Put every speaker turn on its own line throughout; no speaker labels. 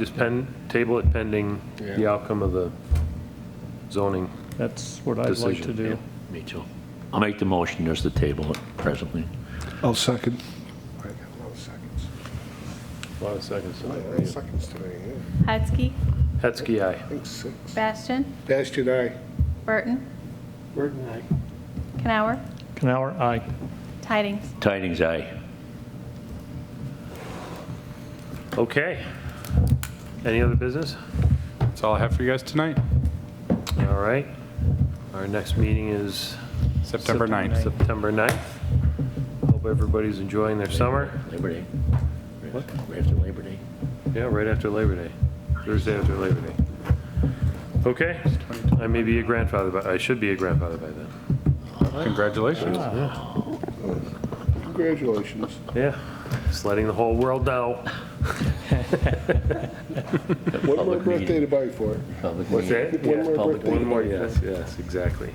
Just pen, table it pending the
Yeah.
outcome of the zoning.
That's what I'd like to
Decision,
do.
Me too. I'll make the motion just to table it presently.
I'll second.
A lot of seconds.
Seconds today, yeah.
Hetzke,
Hetzke, aye.
I think six.
Bastian,
Bastion, aye.
Burton,
Burton, aye.
Canower,
Canower, aye.
Tidings.
Tidings, aye.
Okay. Any other business?
That's all I have for you guys tonight,
All right. Our next meeting is
September 9th.
September 9th. Hope everybody's enjoying their summer.
Labor Day. Right after Labor Day.
Yeah, right after Labor Day, Thursday after Labor Day. Okay, I may be a grandfather, but I should be a grandfather by then.
Congratulations.
Congratulations.
Yeah, just letting the whole world know.
One more
Public meeting.
birthday to buy for it.
Public
What's
meeting.
that?
One
Yeah,
more
public
birthday.
One
meeting.
more, yes, yes, exactly.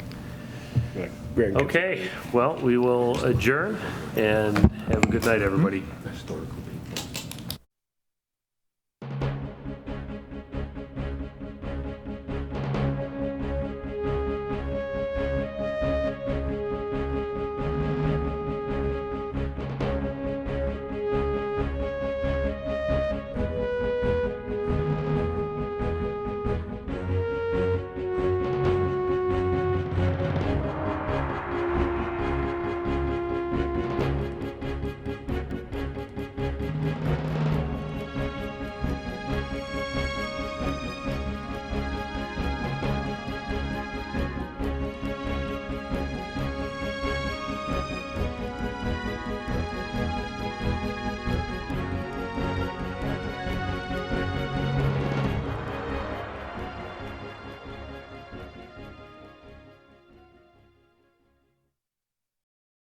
Grandkids.
Okay, well, we will adjourn and have a good night, everybody.
Historical.